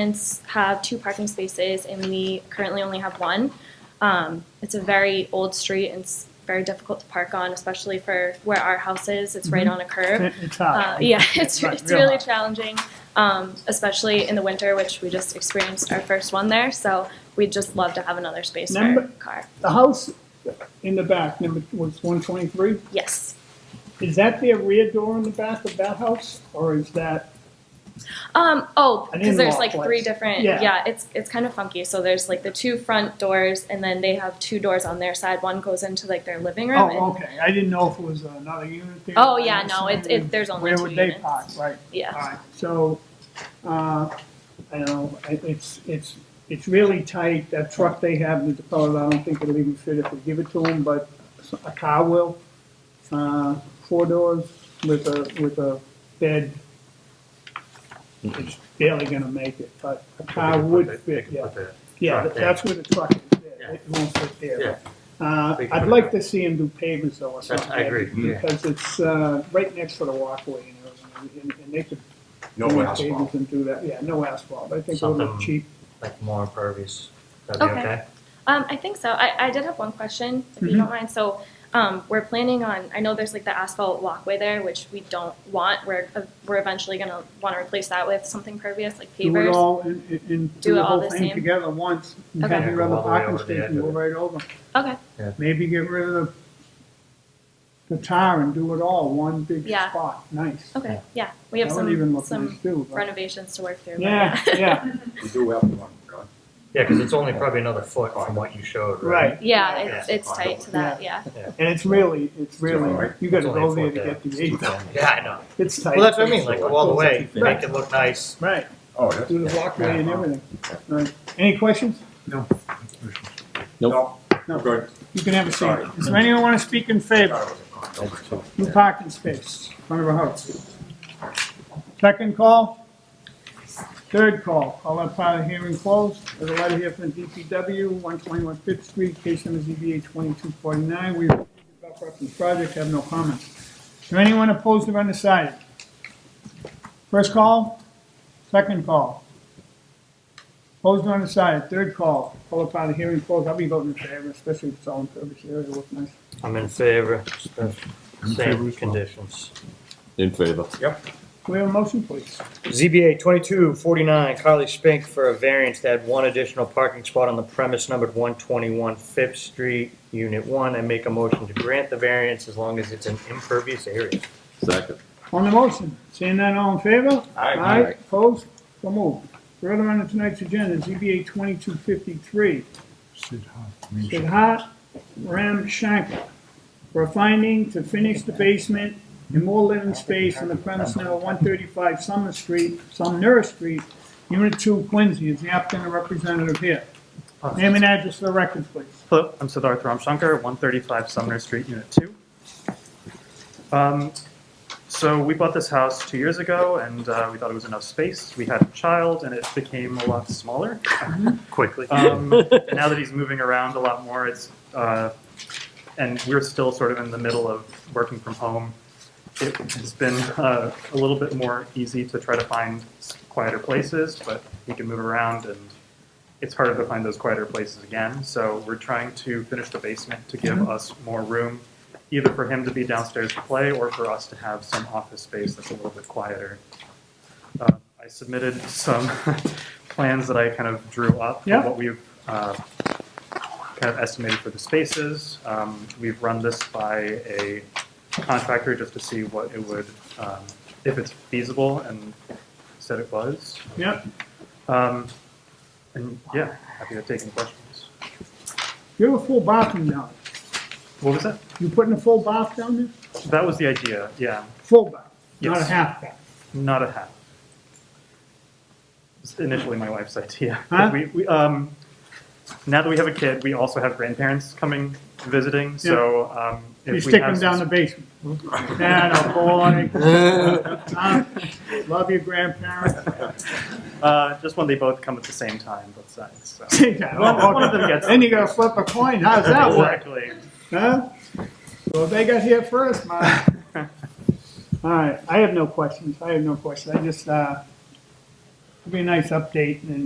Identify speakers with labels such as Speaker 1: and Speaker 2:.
Speaker 1: tenants have two parking spaces and we currently only have one. Um, it's a very old street and it's very difficult to park on, especially for where our house is. It's right on a curve.
Speaker 2: It's
Speaker 1: Uh,
Speaker 2: hot.
Speaker 1: yeah, it's,
Speaker 2: Right,
Speaker 1: it's
Speaker 2: Mm-hmm. real
Speaker 1: really
Speaker 2: hot.
Speaker 1: challenging, um, especially in the winter, which we just experienced our first one there. So we'd just love to have another space for our
Speaker 2: Number-
Speaker 1: car.
Speaker 2: The house in the back, number, was one twenty-three,
Speaker 1: Yes.
Speaker 2: is that their rear door in the back of that house, or is that,
Speaker 1: Um, oh,
Speaker 2: An
Speaker 1: because there's
Speaker 2: in-law
Speaker 1: like three
Speaker 2: place.
Speaker 1: different. Yeah.
Speaker 2: Yeah.
Speaker 1: it's it's kind of funky. So there's like the two front doors, and then they have two doors on their side. One goes into like their living room. and,
Speaker 2: oh, okay, I didn't know if it was another unit there.
Speaker 1: Oh, yeah, no, it's- it- there's only two
Speaker 2: Where would they
Speaker 1: units.
Speaker 2: park, right?
Speaker 1: Yeah.
Speaker 2: All right, so, uh, I don't know, I- it's, it's, it's really tight, that truck they have in the Dakota, I don't think it'll even fit if we give it to them, but a car will. Uh, four doors with a, with a bed. It's barely gonna make it, but a car would fit, yeah. Yeah,
Speaker 3: Truck
Speaker 2: that-
Speaker 3: there.
Speaker 2: that's where the truck is,
Speaker 3: Yeah.
Speaker 2: there. it won't fit
Speaker 3: Yeah.
Speaker 2: there. Uh,
Speaker 3: They can
Speaker 2: I'd
Speaker 3: put it
Speaker 2: like
Speaker 3: up.
Speaker 2: to see him do pavements though or
Speaker 3: That's-
Speaker 2: something.
Speaker 3: I agree, yeah.
Speaker 2: Because it's, uh, right next to the walkway and everything, and, and they could.
Speaker 4: No
Speaker 2: do
Speaker 4: asphalt.
Speaker 2: pavements And do that, yeah, no asphalt, I think it'll look
Speaker 3: Something-
Speaker 2: cheap.
Speaker 3: Like more impervious. That'd
Speaker 1: Okay.
Speaker 3: be okay?
Speaker 1: Um, I think so. I, I did have one question, if you
Speaker 2: Mhm.
Speaker 1: don't mind. So, um, we're planning on, I know there's like the asphalt walkway there, which we don't want. We're, uh, we're eventually gonna wanna replace that with something pervious, like
Speaker 2: Do it
Speaker 1: pavers.
Speaker 2: all and, and- and
Speaker 1: Do
Speaker 2: do
Speaker 1: it
Speaker 2: the
Speaker 1: all
Speaker 2: whole
Speaker 1: the
Speaker 2: thing
Speaker 1: same?
Speaker 2: together once, and
Speaker 1: Okay.
Speaker 2: have
Speaker 3: Yeah,
Speaker 2: your
Speaker 3: go
Speaker 2: other
Speaker 3: all the way
Speaker 2: parking
Speaker 3: over the
Speaker 2: space
Speaker 3: end
Speaker 2: and go
Speaker 3: of it.
Speaker 2: right over.
Speaker 1: Okay,
Speaker 2: Maybe get rid of the, the tar and do it all, one big
Speaker 1: Yeah.
Speaker 2: spot, nice.
Speaker 1: okay, yeah. We have
Speaker 2: That would even
Speaker 1: some,
Speaker 2: look nice
Speaker 1: some
Speaker 2: too, but-
Speaker 1: renovations to work through. but-
Speaker 2: Yeah, yeah.
Speaker 4: We do have one, right?
Speaker 3: Yeah, because it's only probably another foot from what you showed, right?
Speaker 2: Right.
Speaker 1: Yeah,
Speaker 4: Yeah.
Speaker 1: it's, it's tight to that, yeah.
Speaker 2: And it's really, it's really,
Speaker 4: Right.
Speaker 2: you gotta
Speaker 3: It's only
Speaker 2: go
Speaker 3: a
Speaker 2: there to get
Speaker 3: foot
Speaker 2: the
Speaker 3: there.
Speaker 2: eight though.
Speaker 3: Yeah, I know.
Speaker 2: It's tight.
Speaker 3: Well, that's what I mean, like go all the way,
Speaker 2: Right.
Speaker 3: make it look nice.
Speaker 2: Right,
Speaker 4: Oh, that's.
Speaker 2: do the walkway and everything. Right. Any questions?
Speaker 4: No.
Speaker 5: Nope.
Speaker 4: No, good.
Speaker 2: You can have a seat.
Speaker 4: Sorry.
Speaker 2: Does anyone wanna speak in favor?
Speaker 4: That's all.
Speaker 2: New parking space, front of a house. Second call? Third call, I'll let part of the hearing closed. There's a letter here from DPW, one twenty-one Fifth Street, case number ZBA twenty-two forty-nine. We have the project, have no comments. Is there anyone opposed or undecided? First call, second call. Opposed or undecided, third call. All upon the hearing closed, I'll be voting in favor, especially if it's all in purpose area, it looks nice.
Speaker 3: I'm in favor, same conditions.
Speaker 5: In favor.
Speaker 4: Yep.
Speaker 2: Can we have a motion, please?
Speaker 3: ZBA 2249, Carly Spink for a variance to add one additional parking spot on the premise numbered 121 Fifth Street, Unit 1. I make a motion to grant the variance as long as it's an impervious area.
Speaker 5: Second.
Speaker 2: On the motion, seeing none, all in favor?
Speaker 4: Aye.
Speaker 2: Aye, opposed, so moved. Further on to tonight's agenda, ZBA twenty-two fifty-three, Sidhat Ram Shankar. For a finding to finish the basement and more living space on the premise number one thirty-five Summer Street, Sumner Street, Unit Two, Quincy, is the applicant or representative here. Name and address for the record, please.
Speaker 6: Hello, I'm Siddharth Ramshankar, 135 Sumner Street, Unit 2. Um, So we bought this house two years ago, and uh, we thought it was enough space. We had a child, and it became a lot smaller quickly. Um, Now that he's moving around a lot more, it's, uh, and we're still sort of in the middle of working from home, it's been uh, a little bit more easy to try to find quieter places, but he can move around and it's harder to find those quieter places again. So we're trying to finish the basement to give us more room, either for him to be downstairs to play or for us to have some office space that's a little bit quieter. Uh, I submitted some plans that I kind of drew up. for
Speaker 2: Yeah.
Speaker 6: What we've uh, kind of estimated for the spaces. Um, We've run this by a contractor just to see what it would, um, if it's feasible, and said it was.
Speaker 2: Yep.
Speaker 6: Um, and yeah, happy to take any questions.
Speaker 2: You have a full bathroom now.
Speaker 6: What was that?
Speaker 2: You putting a full bath down there?
Speaker 6: That was the idea, yeah,
Speaker 2: Full bath, not a
Speaker 6: Yes.
Speaker 2: half bath.
Speaker 6: not a half. It's initially my wife's idea.
Speaker 2: Huh?
Speaker 6: We, we, um, now that we have a kid, we also have grandparents coming visiting, so um, if
Speaker 2: You
Speaker 6: we
Speaker 2: stick
Speaker 6: have
Speaker 2: them down the
Speaker 6: some-
Speaker 2: basement. Dad, oh boy. Tom, Love your grandparents.
Speaker 6: uh, just when they both come at the same time, both sides. So.
Speaker 2: One
Speaker 6: one of them gets-
Speaker 2: Then you gotta flip a coin, how's that work?
Speaker 6: exactly.
Speaker 2: Huh? Well, they got here first, man. All right, I have no questions, I have no questions, I just, uh, It'd be a nice update and